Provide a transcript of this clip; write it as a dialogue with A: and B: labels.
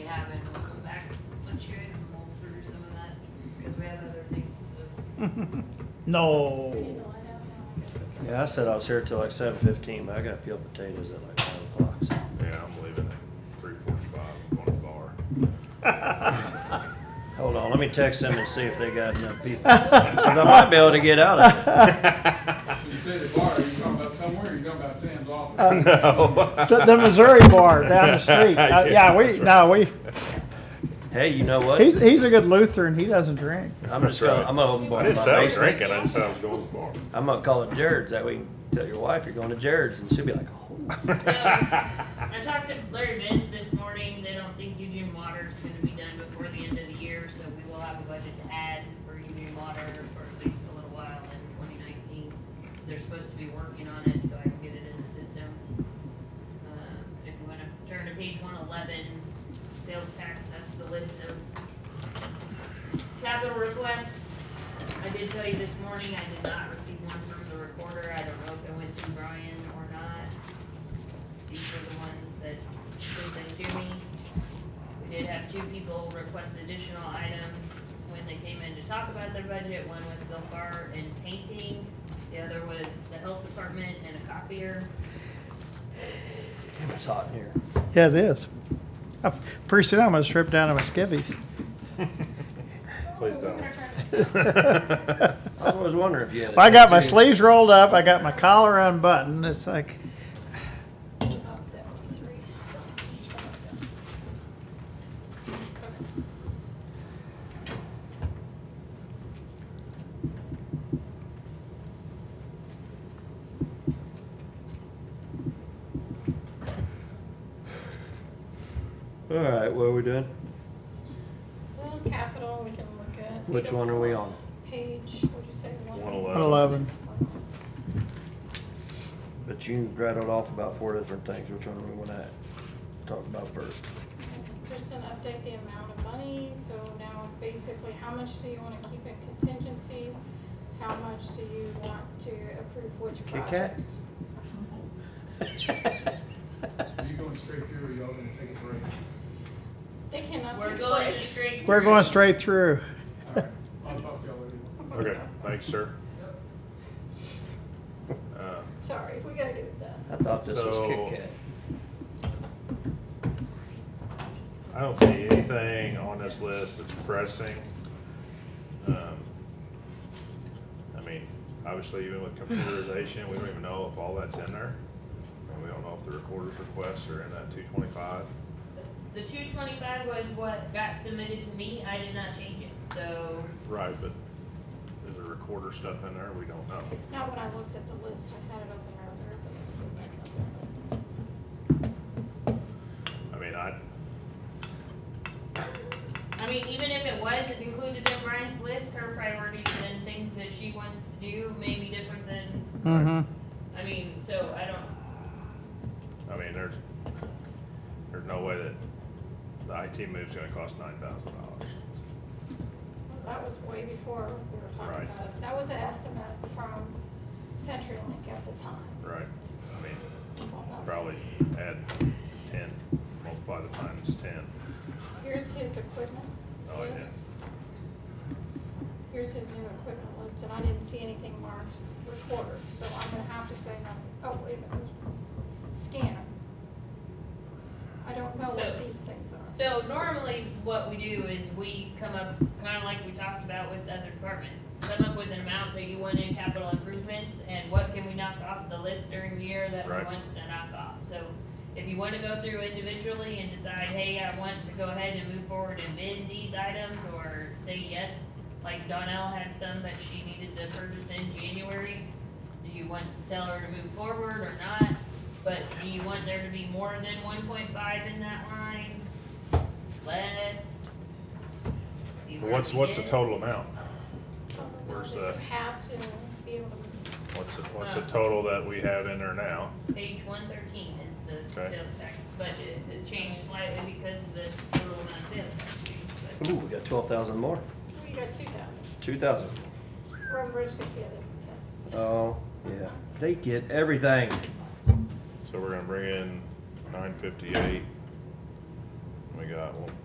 A: No.
B: Yeah, I said I was here till like seven fifteen, but I gotta peel potatoes at like five o'clock. so.
C: Yeah, I'm leaving at three forty-five, I'm going to the bar.
B: Hold on, let me text them and see if they got enough people. 'Cause I might be able to get out of it.
D: You say the bar, you talking about somewhere, you talking about Sam's office?
A: The, the Missouri bar down the street. Uh, yeah, we,
C: That's right.
A: no, we,
B: Hey, you know what?
A: he's, he's a good Lutheran. He doesn't drink.
B: I'm just gonna, I'm gonna open
C: I
B: bar in
C: didn't
B: my
C: say I was
B: basement.
C: drinking, I just said I was going to the bar.
B: I'm gonna call it Jared's, that way you can tell your wife you're going to Jared's and she'll be like, oh.
E: So, I talked to Larry Vince this morning, they don't think Eugene Water is gonna be done before the end of the year, so we will have a budget to add for Eugene Water for at least a little while in twenty nineteen. They're supposed to be working on it, so I can get it in the system. Um, If you wanna turn to page one eleven, sales tax, that's the list of capital requests. I did tell you this morning, I did not receive one from the recorder, I don't know if it went to Brian or not. These are the ones that they sent to me. We did have two people request additional items when they came in to talk about their budget. One was Bill Farr and painting, the other was the health department and a copier.
B: Damn, it's hot in here.
A: Yeah, it is. Uh, Pretty soon I'm gonna strip down to my skivvies.
C: Please don't.
B: I was always wondering if you had. a
A: Well, I got my
B: tattoo.
A: sleeves rolled up. I got my collar unbuttoned. It's like,
B: All right, what are we doing?
F: Well, capital, we can look at. oh
B: Which one are we on?
F: Page, what'd you say,
C: One
F: one?
C: eleven.
A: 111.
B: But you rattled off about four different things. Which one do we wanna talk about first?
F: Just to update the amount of money, so now it's basically, how much do you wanna keep in contingency? How much do you want to approve which
B: Kit Kat?
F: projects?
D: You going straight through, or y'all gonna take a break?
F: They cannot
E: We're
F: take
E: going
F: breaks.
E: straight. through.
A: We're going straight through.
D: All right, I'll talk to y'all later.
C: Okay, thanks, sir. Uh,
F: Sorry, we gotta do that.
B: I thought this was
C: So-
B: Kit Kat.
C: I don't see anything on this list that's pressing. Um, I mean, obviously even with computerization, we don't even know if all that's in there. And we don't know if the recorder's requests are in that two twenty-five.
E: The two twenty-five was what got submitted to me, I did not change it, so
C: Right, but is there recorder stuff in there? We don't know.
F: Not when I looked at the list, I had it open earlier, but I put it back up there.
C: I mean, I,
E: I mean, even if it was included in Brian's list, her priorities and things that she wants to do may be different than,
A: Mm-hmm.
E: I mean, so I don't,
C: I mean, there's, there's no way that the IT move's gonna cost nine thousand dollars.
F: That was way before we were
C: Right.
F: talking about it. That was an estimate from CenturyLink at the time.
C: Right. I mean,
F: So I'm not-
C: probably add ten, multiply the times ten.
F: Here's his equipment.
C: Oh, yeah.
F: list. Here's his new equipment list, and I didn't see anything marked recorder, so I'm gonna have to say nothing. Oh, wait a minute, scanner. I don't know what
E: So-
F: these things are.
E: so normally what we do is we come up, kinda like we talked about with other departments, come up with an amount that you want in capital improvements, and what can we knock off the list during the year that we
C: Right.
E: want to knock off, so if you wanna go through individually and decide, hey, I want to go ahead and move forward and bid these items, or say yes like Donnell had some that she needed to purchase in January. Do you want to tell her to move forward or not? But do you want there to be more than one point five in that line? Less? Do you want
C: What's,
E: to
C: what's the
E: get-
C: total amount?
F: Something about
C: where's
F: that you
C: that?
F: Have to be able to,
C: What's, the- what's the total that we have in there now?
E: Page one thirteen is the
C: Okay.
E: sales tax budget. It changed slightly because of the total amount of sales tax. change,
B: Ooh, we got twelve thousand more.
F: we got two thousand.
B: Two thousand.
F: Road Bridge gets the other ten.
B: Oh, yeah. They get everything.
C: So we're gonna bring in nine fifty-eight. We got one